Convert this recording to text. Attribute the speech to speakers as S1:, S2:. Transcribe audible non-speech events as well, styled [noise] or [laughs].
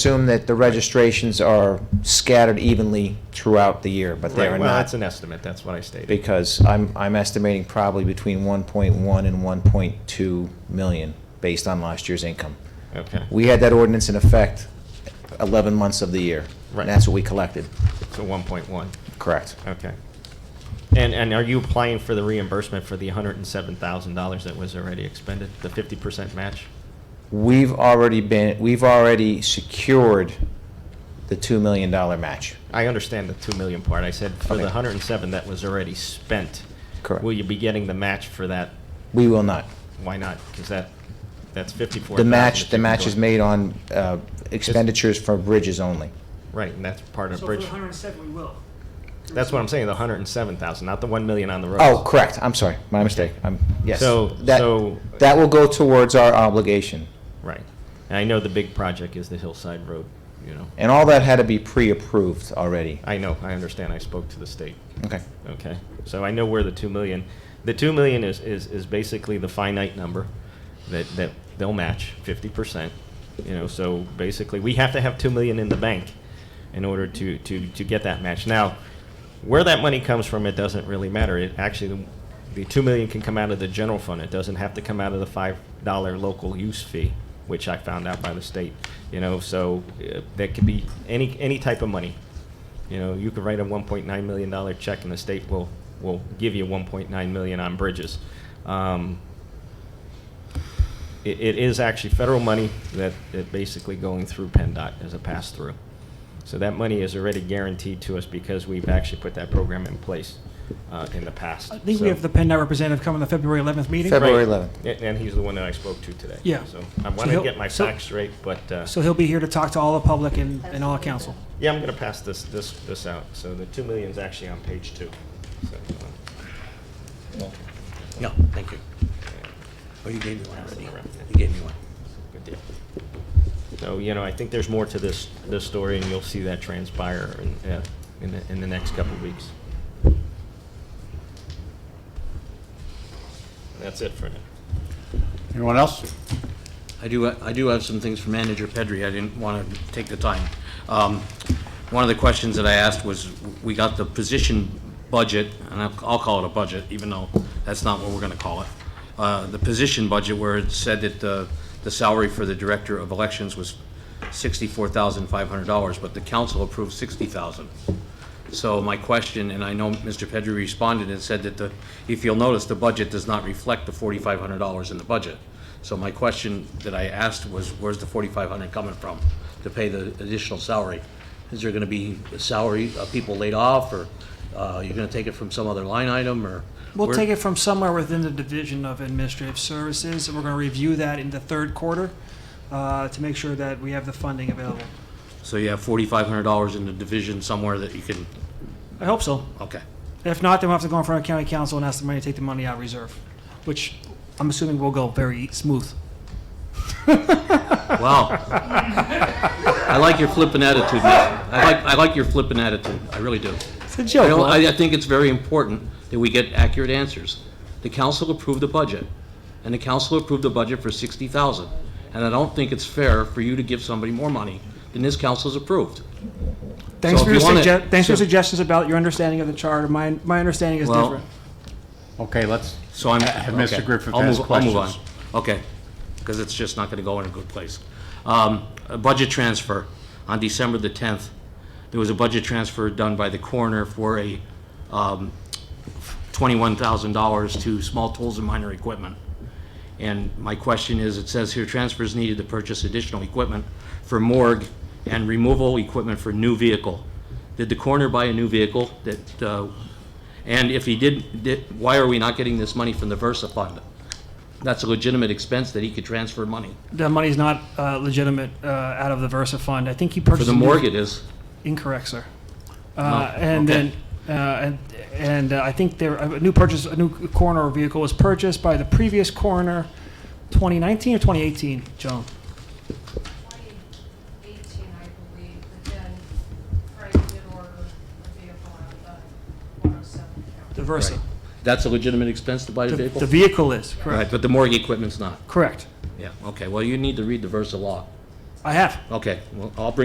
S1: assume that the registrations are scattered evenly throughout the year, but they
S2: Right,
S1: are
S2: well, that's
S1: not.
S2: an estimate, that's what I stated.
S1: Because I'm, I'm estimating probably between 1.1 and 1.2 million based on last year's income.
S2: Okay,
S1: We had that ordinance in effect 11 months of the year.
S2: Right.
S1: And that's what we collected.
S2: so 1.1,
S1: Correct.
S2: okay. And, and are you applying for the reimbursement for the $107,000 that was already expended, the 50% match?
S1: We've already been, we've already secured the $2 million match.
S2: I understand the 2 million part, I said for
S1: Okay.
S2: the 107 that was already spent.
S1: Correct.
S2: Will you be getting the match for that?
S1: We will not.
S2: Why not? Because that, that's 54.
S1: The match, the match is made on uh, expenditures for bridges only.
S2: Right, and that's part of
S3: So for
S2: bridge.
S3: the hundred and seven, we will.
S2: That's what I'm saying, the 107,000, not the 1 million on the roads.
S1: Oh, correct, I'm sorry, my mistake, I'm, yes.
S2: So-
S1: That-
S2: so-
S1: That will go towards our obligation,
S2: Right. And I know the big project is the Hillside Road, you know.
S1: and all that had to be pre-approved already.
S2: I know, I understand, I spoke to the state.
S1: Okay,
S2: Okay, so I know where the two million, the two million is, is, is basically the finite number that, that they'll match fifty percent. You know, so basically, we have to have two million in the bank in order to, to, to get that match. Now, where that money comes from, it doesn't really matter. It actually, the- the two million can come out of the general fund. It doesn't have to come out of the five dollar local use fee, which I found out by the state. You know, so uh, that could be any, any type of money. You know, you could write a one point nine million dollar check and the state will, will give you one point nine million on bridges. Um, It, it is actually federal money that, that basically going through PennDOT as a pass-through. So that money is already guaranteed to us because we've actually put that program in place, uh, in the past.
S3: I think we have the PennDOT representative coming to February 11th meeting.
S1: Feb- February 11th.
S2: And, and he's the one that I spoke to today.
S3: Yeah.
S2: So I
S3: So
S2: wanna
S3: he'll-
S2: get my
S3: so-
S2: facts straight, but, uh,
S3: So he'll be here to talk to all the public and, and all council.
S2: yeah, I'm gonna pass this, this, this out. So the two million's actually on page two. So, uh,
S4: No, thank you. Oh, you gave me one already. You gave me one.
S2: Good deal. So, you know, I think there's more to this, this story, and you'll see that transpire in, uh, in the, in the next couple of weeks. That's it for now.
S4: Anyone else? I do, I do have some things for Manager Pedri. I didn't want to take the time. Um, One of the questions that I asked was, we got the position budget, and I'll I'll call it a budget, even though that's not what we're going to call it. Uh, The position budget where it said that the, the salary for the Director of Elections was $64,500, but the council approved 60000 So my question, and I know Mr. Pedri responded and said that the, if you'll notice, the budget does not reflect the forty-five hundred dollars in the budget. So my question that I asked was, where's the forty-five hundred coming from to pay the additional salary? Is there gonna be salary, uh, people laid off, or, uh, you're gonna take it from some other line item, or?
S3: We'll
S4: where-
S3: take it from somewhere within the Division of Administrative Services, and we're going to review that in the third quarter uh, to make sure that we have the funding available.
S4: So you have forty-five hundred dollars in the division somewhere that you can,
S3: I hope so.
S4: okay.
S3: If not, then we'll have to go in front of county council and ask the money to take the money out of reserve, which I'm assuming will go very smooth.
S4: Wow. [laughs] I like your flippant attitude, man. I like, I like your flippant attitude, I really do.
S3: It's a
S4: I
S3: joke.
S4: don't-
S3: Walt.
S4: I, I think it's very important that we get accurate answers. The council approved the budget, and the council approved the budget for sixty thousand. And I don't think it's fair for you to give somebody more money than this council's approved.
S3: Thanks
S4: So
S3: for your
S4: if you wanna-
S3: sugge- thanks for your
S4: so-
S3: suggestions about your understanding of the charter. My, my understanding is
S4: Well,
S3: different.
S5: Okay, let's,
S4: So I'm.
S5: Mr.
S4: okay.
S5: Griffith
S4: I'll
S5: has
S4: move- I'll move on.
S5: questions.
S4: Okay, because it's just not gonna go in a good place. Um, a budget transfer, on December the tenth, there was a budget transfer done by the coroner for a, um, twenty-one thousand dollars to small tools and minor equipment. And my question is, it says here, transfers needed to purchase additional equipment for morgue and removal equipment for new vehicle. Did the coroner buy a new vehicle that, uh, and if he did, did, why are we not getting this money from the Versa fund? That's a legitimate expense that he could transfer money.
S3: The money's not uh, legitimate uh, out of the Versa fund. I think he purchased.
S4: For the
S3: a new-
S4: morgue it is,
S3: Incorrect, sir. Uh, And
S4: okay.
S3: then, uh, and, and uh, I think there, a new purchase, a new coroner vehicle was purchased by the previous coroner, 2019 or 2018, Joan?
S6: 2018, I believe, but then Frank did order a vehicle out of the 107 account.
S3: The Versa.
S4: that's a legitimate expense to buy the
S3: The the
S4: vehicle?
S3: vehicle is, correct.
S4: Right, but the morgue equipment's not.
S3: Correct.
S4: Yeah, okay, well, you need to read the Versa law.
S3: I have.
S4: Okay, well, I'll bring